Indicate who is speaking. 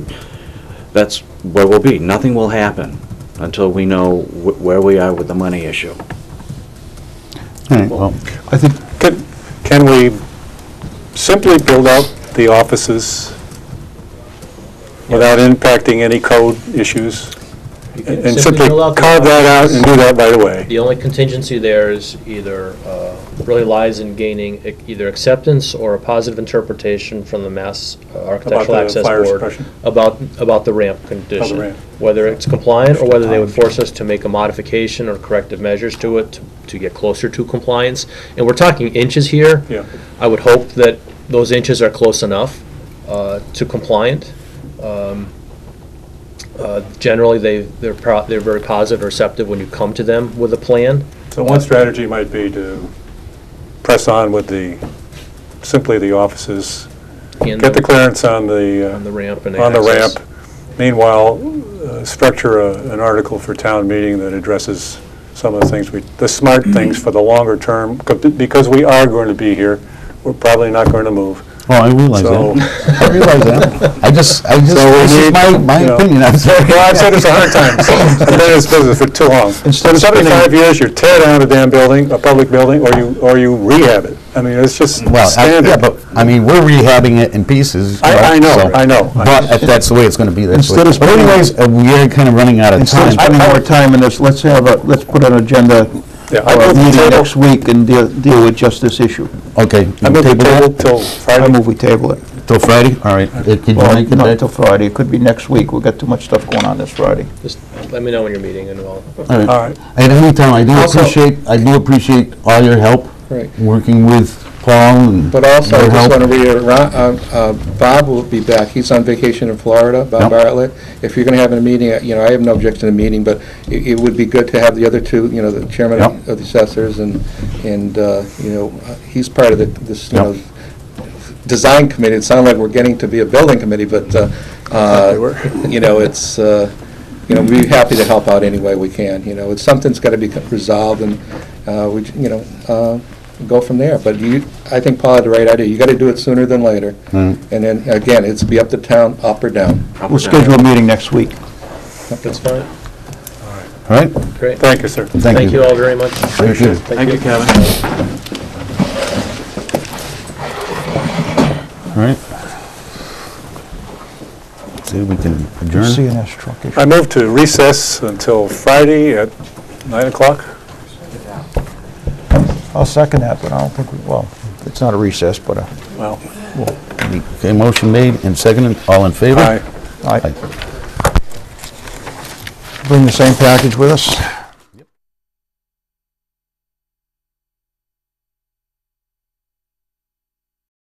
Speaker 1: that's where we'll be. Nothing will happen until we know wh- where we are with the money issue.
Speaker 2: All right, well,
Speaker 3: I think,
Speaker 4: Can can we simply build out the offices without impacting any code issues?
Speaker 5: You can
Speaker 4: And simply
Speaker 5: fill out the
Speaker 4: carve that out and do that right away?
Speaker 5: The only contingency there is either, uh, really lies in gaining e- either acceptance or a positive interpretation from the Mass uh,
Speaker 4: About
Speaker 5: Architectural
Speaker 4: the
Speaker 5: Access
Speaker 4: fire
Speaker 5: Board
Speaker 4: suppression?
Speaker 5: about, about the ramp condition.
Speaker 4: ramp.
Speaker 5: Whether it's compliant or whether they would force us to make a modification or corrective measures to it to- to get closer to compliance. And we're talking inches here.
Speaker 4: Yeah.
Speaker 5: I would hope that those inches are close enough uh, to compliant. Um, uh, Generally, they, they're, pro- they're very positive, receptive when you come to them with a plan.
Speaker 4: So one strategy might be to press on with the, simply the offices,
Speaker 5: and
Speaker 4: get the clearance on the,
Speaker 5: On the ramp and
Speaker 4: uh, on the
Speaker 5: access.
Speaker 4: ramp. Meanwhile, uh, structure a- an article for town meeting that addresses some of the things, we the smart things for the longer term, 'cause- because we are going to be here, we're probably not going to move.
Speaker 2: well, I realize
Speaker 4: So,
Speaker 2: that. I realize that. I just, I just,
Speaker 4: So we
Speaker 2: this is
Speaker 4: need,
Speaker 2: my, my
Speaker 4: you know-
Speaker 2: opinion, I'm sorry.
Speaker 4: well, I've said this a hundred times, I've been in this business for too long.
Speaker 2: Instead of spending-
Speaker 4: 75 years, you tear down a damn building, a public building, or you, or you rehab it. I mean, it's just
Speaker 2: Well, I- yeah,
Speaker 4: standard.
Speaker 2: but, I mean, we're rehabbing it in pieces.
Speaker 4: I-
Speaker 2: right?
Speaker 4: I know,
Speaker 2: So-
Speaker 4: I know.
Speaker 2: But if that's the way it's gonna be, that's the way.
Speaker 3: Instead of
Speaker 2: But
Speaker 3: spending-
Speaker 2: anyways, uh, we are kind of running out of
Speaker 3: Instead of
Speaker 2: time.
Speaker 3: spending more time in this, let's have a, let's put an agenda
Speaker 4: Yeah,
Speaker 3: or
Speaker 4: I
Speaker 3: a
Speaker 4: move the
Speaker 3: meeting
Speaker 4: table.
Speaker 3: next week and deal deal with just this issue.
Speaker 2: Okay,
Speaker 4: I
Speaker 2: you
Speaker 4: moved the
Speaker 2: table
Speaker 4: table
Speaker 2: that
Speaker 4: till
Speaker 3: I
Speaker 4: Friday.
Speaker 3: move we table it.
Speaker 2: till Friday, all right. Uh, Did you
Speaker 3: Well,
Speaker 2: make it
Speaker 3: not
Speaker 2: that?
Speaker 3: till Friday, it could be next week, we've got too much stuff going on this Friday.
Speaker 5: Just let me know when you're meeting and I'll.
Speaker 2: All right.
Speaker 4: All right.
Speaker 2: At any time, I do
Speaker 6: Also-
Speaker 2: appreciate, I do appreciate all your help,
Speaker 6: Right.
Speaker 2: working with Paul and
Speaker 6: But also, I
Speaker 2: your
Speaker 6: just
Speaker 2: Mm. help.
Speaker 6: want to reiterate, Ron- uh, uh, Bob will be back, he's on vacation in Florida, Bob
Speaker 2: Yep.
Speaker 6: Bartlett. If you're going to have a meeting, uh, you know, I have no objection to a meeting, but it it would be good to have the other two, you know, the chairman
Speaker 2: Yep.
Speaker 6: of the assessors, and, and, uh, you know, uh, he's part of the- this, you
Speaker 2: Yep.
Speaker 6: know, design committee, it sounded like we're getting to be a building committee, but, uh, uh, you know, it's, uh, you know, we're happy to help out any way we can, you know, it's, something's got to be resolved, and uh, we, you know, uh, go from there. But you, I think Paul had the right idea, you got to do it sooner than later. And then, again, it's be up to town, up or down.
Speaker 3: We'll schedule a meeting next week.
Speaker 5: That's fine,
Speaker 2: All right,
Speaker 5: great.
Speaker 4: Thank you, sir.
Speaker 2: thank you.
Speaker 5: all very much.
Speaker 2: Thank you.
Speaker 1: Thank you, Kevin.
Speaker 2: All right. See, we can adjourn.
Speaker 3: CNS truck issue.
Speaker 4: I move to recess until Friday at 9 o'clock.
Speaker 3: I'll second that, but I don't think, we well, it's not a recess, but uh, a,
Speaker 4: Well,
Speaker 2: Okay, motion made and seconded, all in favor?
Speaker 4: aye.
Speaker 3: I
Speaker 2: Aye.
Speaker 3: bring the same package with us.